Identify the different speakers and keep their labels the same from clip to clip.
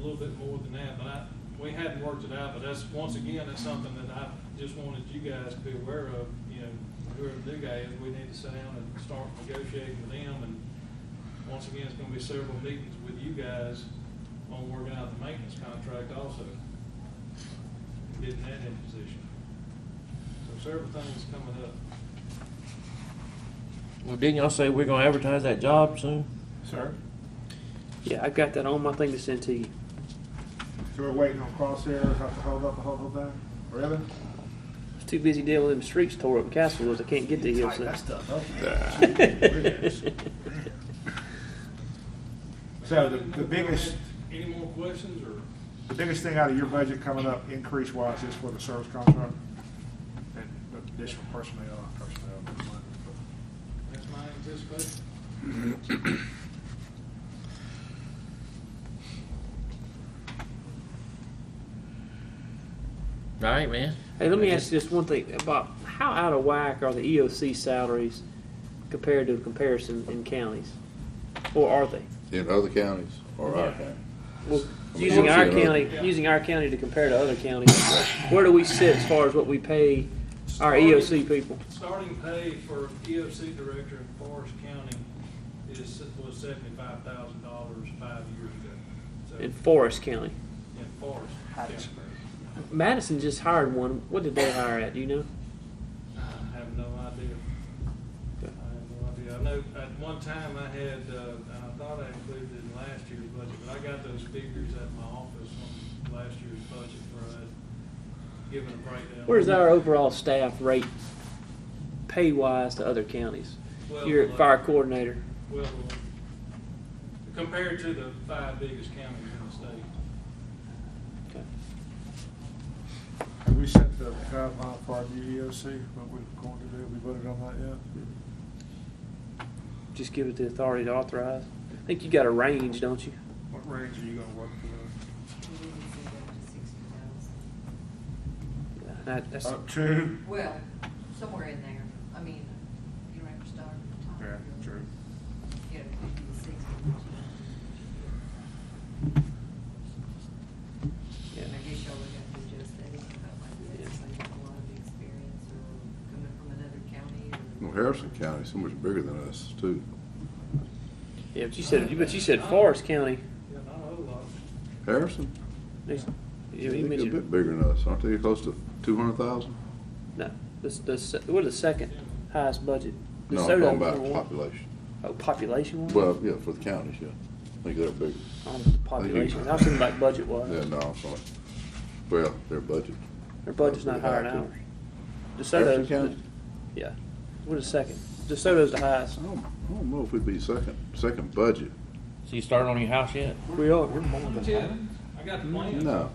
Speaker 1: little bit more than that, but I, we hadn't worked it out, but that's, once again, that's something that I just wanted you guys to be aware of, you know, whoever the new guy is, we need to sit down and start negotiating with them, and once again, it's gonna be several meetings with you guys on working out the maintenance contract also, getting that in position. So several things coming up.
Speaker 2: Well, didn't y'all say we're gonna advertise that job soon?
Speaker 3: Sir,
Speaker 4: Yeah, I've got that on my thing to send to you.
Speaker 3: so we're waiting on crosshairs, have to hold up the whole thing? Really?
Speaker 4: I was too busy dealing with them streets tore up in Castlewood. I can't get to
Speaker 3: Tighten
Speaker 4: Hill
Speaker 3: that
Speaker 4: Center.
Speaker 3: stuff up. So the, the biggest,
Speaker 1: Any more questions, or?
Speaker 3: the biggest thing out of your budget coming up increase wise is for the service contract? And the additional personnel, personnel.
Speaker 1: That's my anticipation.
Speaker 2: All right, man.
Speaker 4: Hey, let me ask you just one thing about how out of whack are the EOC salaries compared to a comparison in counties, or are they?
Speaker 5: In other counties or our
Speaker 4: Yeah.
Speaker 5: county?
Speaker 4: Well,
Speaker 5: I mean,
Speaker 4: using our
Speaker 5: obviously,
Speaker 4: county,
Speaker 5: in
Speaker 4: using our county to compare to other counties, where do we sit as far as what we pay our EOC people?
Speaker 1: Starting pay for EOC director in Forest County is, was seventy-five thousand dollars five years ago. So,
Speaker 4: In Forest County,
Speaker 1: in Forest.
Speaker 3: Hats.
Speaker 1: County.
Speaker 4: Madison just hired one. What did they hire at? Do you know?
Speaker 1: I have no idea. I have no idea. I know, at one time I had, uh, and I thought I included it in last year's budget, but I got those figures at my office on last year's budget where I had given a breakdown.
Speaker 4: Where's our overall staff rate, pay wise, to other counties?
Speaker 1: Well,
Speaker 4: Your
Speaker 1: like-
Speaker 4: fire coordinator.
Speaker 1: Well, compared to the five biggest counties in the state.
Speaker 4: Okay.
Speaker 3: Have we set the guideline for our new EOC, E what we're going to do? We voted on that yet?
Speaker 4: Just give it the authority to authorize. I think you got a range, don't you?
Speaker 3: What range are you gonna work for?
Speaker 4: That, that's,
Speaker 6: Uh,
Speaker 3: those? Up to?
Speaker 6: Well, somewhere in there, I mean, you don't have to start at the top.
Speaker 3: Yeah, true.
Speaker 6: You know, fifty to sixty.
Speaker 4: yeah.
Speaker 6: I guess y'all would have to adjust that if you felt like you had
Speaker 4: Yeah.
Speaker 6: like a lot of experience or coming from another county or.
Speaker 5: Well, Harrison County's so much bigger than us too.
Speaker 4: Yeah, but you said, but you said Forest County.
Speaker 1: Yeah, not a whole lot.
Speaker 5: Harrison?
Speaker 4: You-
Speaker 5: I
Speaker 4: You
Speaker 5: think They're a
Speaker 4: mentioned,
Speaker 5: bit bigger than us. Aren't they close to two hundred thousand?
Speaker 4: no, this, the se we're the second highest budget.
Speaker 5: No, I'm
Speaker 4: DeSoto
Speaker 5: talking about
Speaker 4: number one.
Speaker 5: population.
Speaker 4: Oh, population wise?
Speaker 5: Well, yeah, for the counties, yeah. I think they're bigger.
Speaker 4: Population, I was thinking about budget
Speaker 5: Yeah,
Speaker 4: wise.
Speaker 5: no, I'm sorry. Well, their budget.
Speaker 4: Their budget's not higher than ours.
Speaker 5: Harrison
Speaker 4: DeSoto,
Speaker 5: County?
Speaker 4: yeah, we're the second. DeSoto's the highest.
Speaker 5: I don't, I don't know if we'd be second, second budget.
Speaker 2: So you started on your house yet?
Speaker 4: We are.
Speaker 1: Yeah, I got the plan.
Speaker 5: No.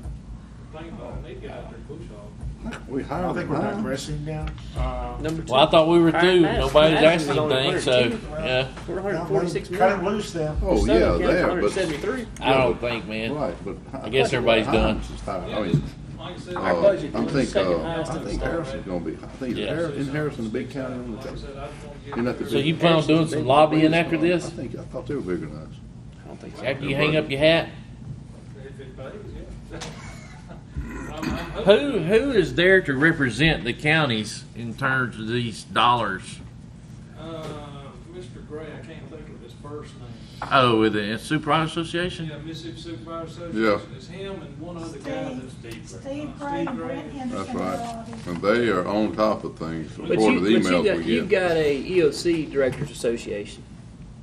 Speaker 1: Thing about, they got their bush hog.
Speaker 5: We
Speaker 3: I
Speaker 5: hired.
Speaker 3: don't think we're
Speaker 4: Uh-huh.
Speaker 5: nine.
Speaker 3: digressing now. Uh,
Speaker 4: Number two.
Speaker 2: Well, I thought we were
Speaker 4: Our
Speaker 2: through.
Speaker 4: Madison-
Speaker 2: Nobody's
Speaker 4: Madison's
Speaker 2: asking
Speaker 4: only
Speaker 2: anything, so,
Speaker 4: 142.
Speaker 2: yeah.
Speaker 4: We're 146
Speaker 3: Cut it
Speaker 4: million.
Speaker 3: look down.
Speaker 5: Oh,
Speaker 4: Southern
Speaker 5: yeah,
Speaker 4: County,
Speaker 5: there, but.
Speaker 4: 173.
Speaker 2: I don't think, man.
Speaker 5: Right, but.
Speaker 2: I guess everybody's done.
Speaker 5: Hiram's is higher. I
Speaker 1: Yeah,
Speaker 5: mean,
Speaker 1: just Like I said.
Speaker 5: uh,
Speaker 4: Our budget
Speaker 5: I'm
Speaker 4: is
Speaker 5: think,
Speaker 4: second
Speaker 5: uh,
Speaker 4: highest
Speaker 5: I
Speaker 4: in the
Speaker 5: think
Speaker 4: state.
Speaker 5: Harrison's gonna be, I think,
Speaker 2: Yeah.
Speaker 5: Harris- isn't Harrison a big county on the
Speaker 1: Like I
Speaker 5: top?
Speaker 1: said, I just wanna get-
Speaker 5: You're not the
Speaker 2: So
Speaker 5: big-
Speaker 2: you plan on doing some lobbying after
Speaker 5: I
Speaker 2: this?
Speaker 5: think, I thought they were bigger than us.
Speaker 4: I don't think so.
Speaker 2: After you hang up your hat?
Speaker 1: If it pays, yeah. I'm- I'm hoping-
Speaker 2: Who, who is there to represent the counties in terms of these dollars?
Speaker 1: Uh, Mr. Gray, I can't think of his first name.
Speaker 2: Oh, with the Supervisor Association?
Speaker 1: Yeah, Mississippi Supervisor
Speaker 5: Yeah.
Speaker 1: Association, it's him and one other guy that's.
Speaker 7: Steve,
Speaker 1: uh,
Speaker 7: Steve Gray,
Speaker 1: Steve Gray.
Speaker 7: Brent
Speaker 5: That's
Speaker 7: Henderson. and
Speaker 5: right.
Speaker 7: Bobby.
Speaker 5: And they are on top of things
Speaker 4: But you,
Speaker 5: according to
Speaker 4: but
Speaker 5: the
Speaker 4: you
Speaker 5: emails
Speaker 4: got,
Speaker 5: we
Speaker 4: you've
Speaker 5: get.
Speaker 4: got a EOC Directors Association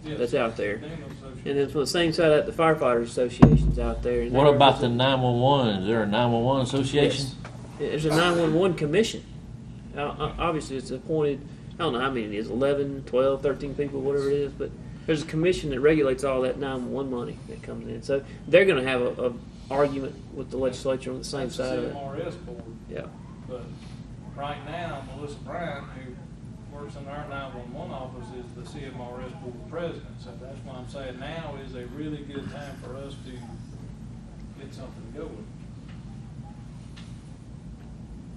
Speaker 1: Yes.
Speaker 4: that's out there.
Speaker 1: Name of the association.
Speaker 4: And then from the same side, out the firefighters associations out there. and
Speaker 2: What
Speaker 4: they're
Speaker 2: about the
Speaker 4: representing-
Speaker 2: 911? Is there a 911 association?
Speaker 4: Yes. There's a 911 commission. Now, o- obviously, it's appointed, I don't know how many it is, 11, 12, 13 people, whatever it is, but there's a commission that regulates all that 911 money that comes in. So they're going to have a, a argument with the legislature on the same
Speaker 1: That's the
Speaker 4: side of it.
Speaker 1: CMRS board,
Speaker 4: Yeah.
Speaker 1: but right now Melissa Bryant, who works in our nine-one-one office, is the CMRS board president. So that's why I'm saying now is a really good time for us to get something going.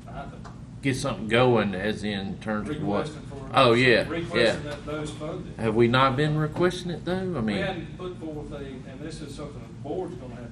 Speaker 1: I think.
Speaker 2: Get something going, as in terms of what?
Speaker 1: Requesting for.
Speaker 2: Oh, yeah, yeah.
Speaker 1: Requesting that those funded.
Speaker 2: Have we not been requesting it though? I mean.
Speaker 1: We hadn't put forth a, and this is something the board's gonna have to